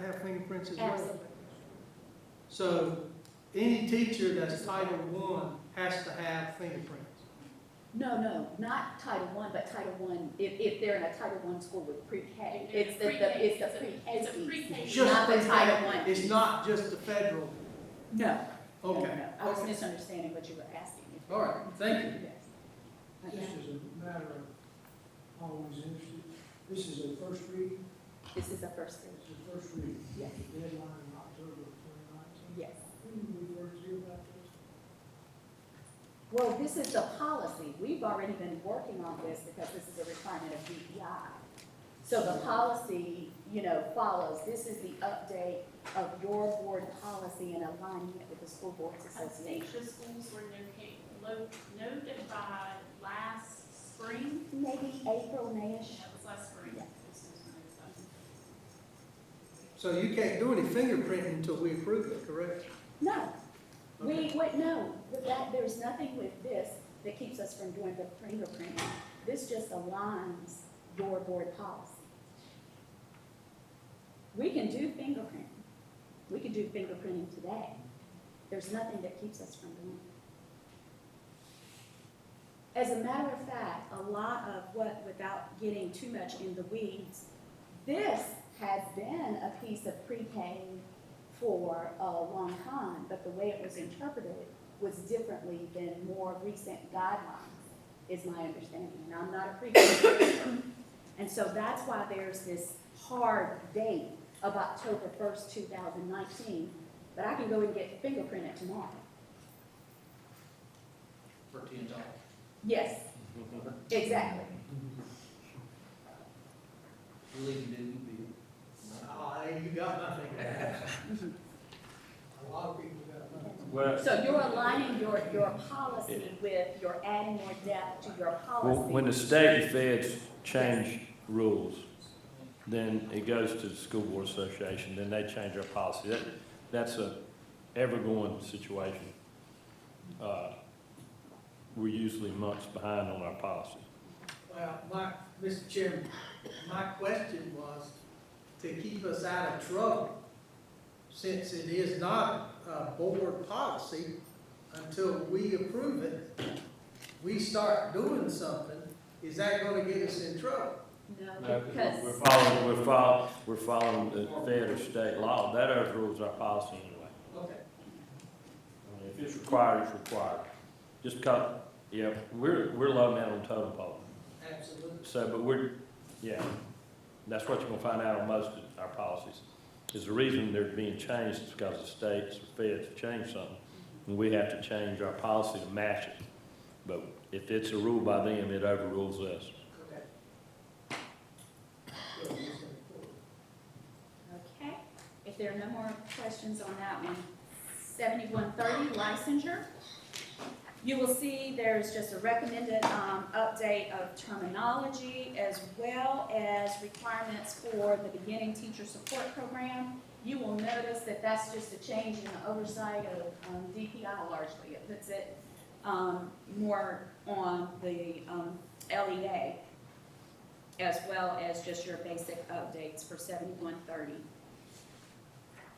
parents as well. Absolutely. So any teacher that's Title One has to have fingerprints. No, no, not Title One, but Title One, if, if they're in a Title One school with pre-K, it's the, the, it's the It's a pre-K piece. pre-K. Just Not the Title One. It's not just the federal, No, no, no, okay, no. I was misunderstanding what you were asking. all right, thank you. Yes. This is a matter of always interested. This is a first read, This is the first thing, this is a first read, yes, deadline in October of twenty nineteen. yes. Who we worked here about this? Well, this is the policy. We've already been working on this because this is a requirement of DEI. So the policy, you know, follows, this is the update of your board policy in alignment with the School Boards I Association. think the schools were noca- lo- notified last spring, Maybe April, May-ish. that was last spring. Yeah. This is when it was So you can't do any fingerprinting until we approve it, correct? No, we, Okay. wait, no, that, there's nothing with this that keeps us from doing the fingerprint. This just aligns your board policy. We can do fingerprint. We can do fingerprinting today. There's nothing that keeps us from doing it. As a matter of fact, a lot of what, without getting too much in the weeds, this has been a piece of pre-K for a long time, but the way it was interpreted was differently than more recent guidelines, is my understanding, and I'm not a pre-K. And so that's why there's this hard date of October first, two thousand nineteen, but I can go and get fingerprinted tomorrow. for ten dollars. Yes, exactly. Really, you didn't Ah, you got my fingerprints. A lot of people got money. Well, So you're aligning your, your policy with, you're adding more depth to your policy. when the state and feds change rules, then it goes to the school board association, then they change our policy. That, that's a ever-going situation. Uh, We're usually months behind on our policy. Well, my, Mr. Chairman, my question was to keep us out of trouble, since it is not a board policy, until we approve it, we start doing something, is that gonna get us in trouble? No, No, because. We're following, we're following, we're following the fed or state law. That overrules our policy anyway. Okay. I mean, If it's required, it's required. Just because, yeah, we're, we're low man on totem pole. Absolutely. So, but we're, yeah, that's what you're gonna find out on most of our policies. Is the reason they're being changed is because the states, the feds have changed something. And we have to change our policy to match it. But if it's a rule by them, it overrules us. Okay. Good, we're just gonna pull it. Okay, if there are no more questions on that one, seventy-one thirty licensure. You will see there's just a recommended, um, update of terminology as well as requirements for the beginning teacher support program. You will notice that that's just a change in the oversight of, um, DPI largely. It puts it, um, more on the, um, LEA as well as just your basic updates for seventy-one thirty.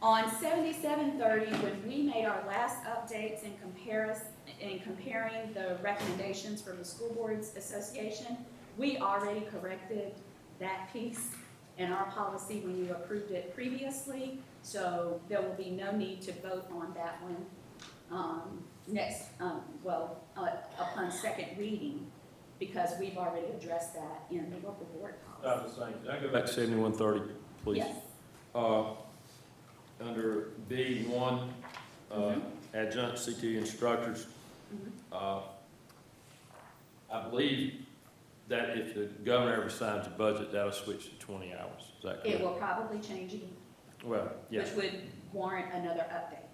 On seventy-seven thirty, when we made our last updates in comparison, in comparing the recommendations from the School Boards Association, we already corrected that piece in our policy when you approved it previously, so there will be no need to vote on that one, um, next, um, well, uh, upon second reading, because we've already addressed that in the local board policy. the same. Can I go back to seventy-one thirty, Uh, please? Yes, Uh, under B one, uh, Mm-hmm. adjunct CTE instructors, Mhm. uh, I believe that if the governor ever signs a budget, that'll switch to twenty hours, is that it correct? will probably change again, Well, yeah, which would warrant another update.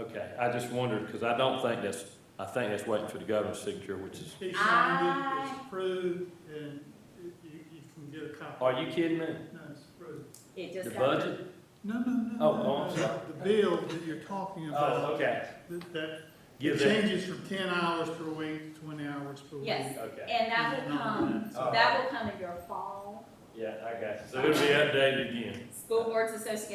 okay, I just wondered, because I don't think that's, I think that's waiting for the governor's signature, which is, He signed it, I- it's approved, and you, you can get a copy. are you kidding me? No, it's approved. It just. The got- budget? No, no, no. Oh, no, oh, I'm no. sorry. The bill that you're talking Oh, about, okay, that, that give that, changes from ten hours per week to twenty hours per week. Yes. okay, And that will come, Oh. that will come in your fall yeah, I got you, so it'll be updated again. School Boards Association